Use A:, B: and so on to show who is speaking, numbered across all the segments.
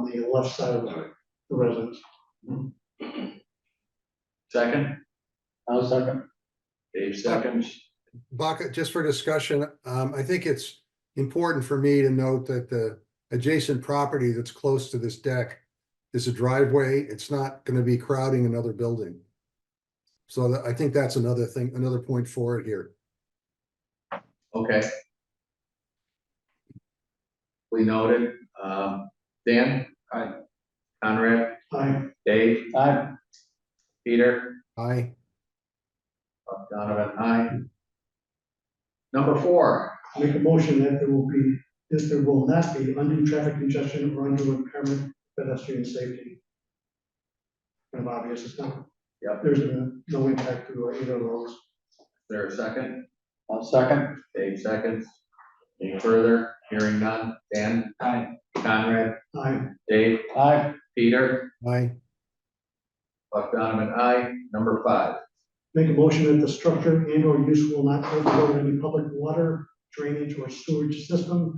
A: the left side of the
B: Alright.
A: residence.
B: Second,
C: I'll second.
B: Dave seconds.
D: Baca, just for discussion, um, I think it's important for me to note that the adjacent property that's close to this deck is a driveway. It's not gonna be crowding another building. So that, I think that's another thing, another point for it here.
B: Okay. We noted, um, Dan? Hi. Conrad,
A: I,
B: Dave,
C: Aye.
B: Peter,
D: Aye,
B: Donovan, aye. Number four,
A: make a motion that there will be, that there will not be undue traffic congestion or undue impairment of pedestrian safety. Kind of obvious, it's not.
B: Yep.
A: There's no- no impact to either of those.
B: Is there a second,
C: I'll second.
B: Dave seconds. Any further, hearing none, Dan?
C: Aye.
B: Conrad,
A: I,
B: Dave,
C: Aye.
B: Peter,
D: aye,
B: Buck Donovan, aye. Number five,
A: make a motion that the structure and or use will not overflow any public water, drainage, or sewage system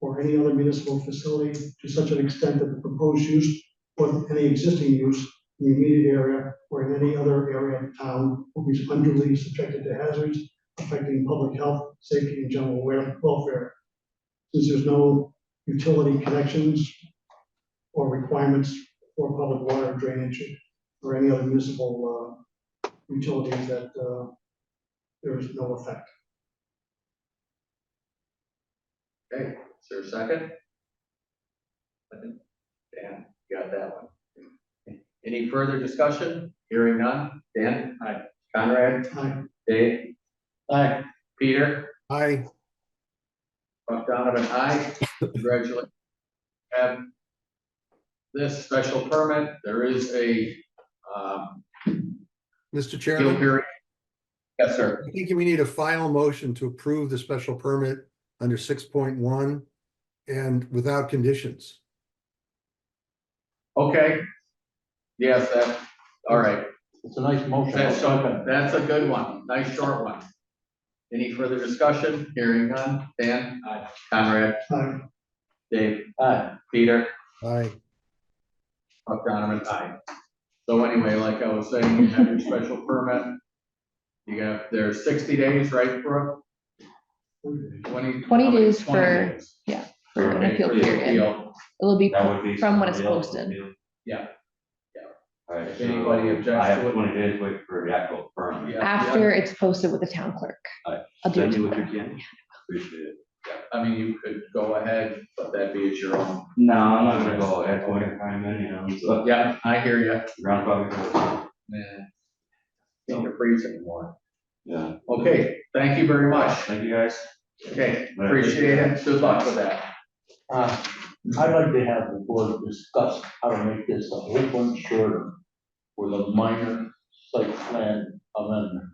A: or any other municipal facility to such an extent that the proposed use or any existing use in the immediate area or in any other area of town will be unduly subjected to hazards affecting public health, safety, and general wel- welfare. Since there's no utility connections or requirements for public water drainage or any other municipal uh, utilities that uh, there is no effect.
B: okay, is there a second? Second. Dan, you got that one. Any further discussion, hearing none, Dan? Aye. Conrad,
A: Aye.
B: Dave,
C: Aye.
B: Peter,
D: aye,
B: Buck Donovan, aye. Congratulations. Have this special permit, there is a, um,
D: Mr.
B: appeal
D: Chairman.
B: period. Yes, sir.
D: I think we need a final motion to approve the special permit under six point one and without conditions.
B: Okay. Yes, that, all right.
C: It's a nice motion. I'll
B: That's, so-
C: second.
B: that's a good one, nice short one. Any further discussion? Hearing none. Dan? Aye. Conrad?
A: Aye.
B: Dave?
C: Aye.
B: Peter?
D: Aye,
B: Buck Donovan? Aye. So anyway, like I was saying, you have your special permit. You have, there's sixty days, right, Brooke? Twenty?
E: 20
B: how many-
E: days
B: 20
E: for-
B: days.
E: for an
B: Okay,
E: appeal
B: for the
E: period.
B: appeal.
E: It'll be
F: That would be.
E: from when it's
F: somebody else's
E: posted.
F: deal.
B: Yeah. Yeah.
F: Alright.
B: If
F: so
B: anybody objects
F: I
B: to it-
F: have twenty days wait for the actual permit.
B: Yeah,
E: after it's posted with the town clerk.
F: Alright,
E: I'll do it
F: Send me what
E: tomorrow.
F: you can. Appreciate it.
B: yeah. I mean, you could go ahead, but that'd be at your own.
F: No, I'm not gonna go at point in time anyhow, so
B: Yeah, I hear you.
F: roundabout.
B: Man. Don't freeze anymore.
F: Yeah,
B: Okay, thank you very much.
F: thank you guys.
B: Okay, appreciate it. Good luck with that.
C: Uh, I'd like to have the board discuss how to make this a whole bunch shorter with a minor site plan amendment.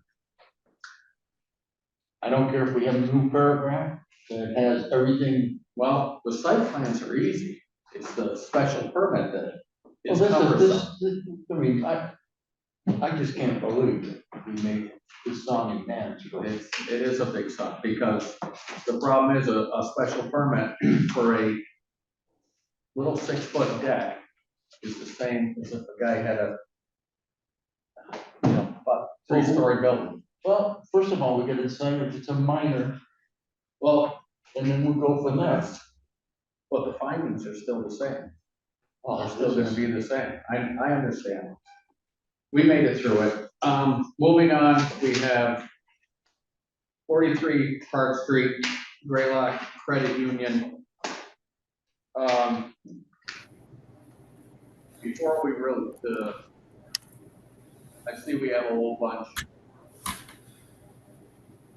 C: I don't care if we have a new paragraph that has everything.
B: Well, the site plans are easy. It's the special permit that
C: Well,
B: is
C: this is,
B: cumbersome.
C: this, this, I mean, I, I just can't believe that we made this sounding manageable.
B: It's, it is a big suck because the problem is a, a special permit for a little six foot deck is the same as if a guy had a you know, a three-story building.
C: Well, first of all, we gotta decide if it's a minor,
B: Well,
C: and then we'll go from there.
B: but the findings are still the same.
C: Oh,
B: are still gonna be the same. I, I understand. We made it through it. Um, moving on, we have forty-three Park Street, Graylock Credit Union. Um, before we really, uh, I see we have a whole bunch.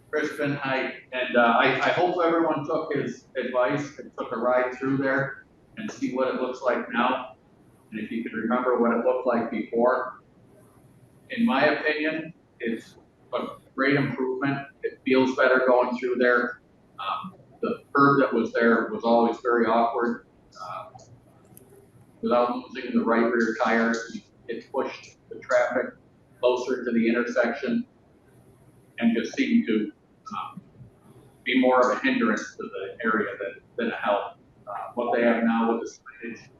B: Crispin Height, and, uh, I, I hope everyone took his advice and took a ride through there and see what it looks like now, and if you can remember what it looked like before. In my opinion, it's a great improvement, it feels better going through there. Um, the curb that was there was always very awkward. Uh, Without losing the right rear tire, it pushed the traffic closer to the intersection and just seemed to, um, be more of a hindrance to the area than, than a help uh, what they have now with the signage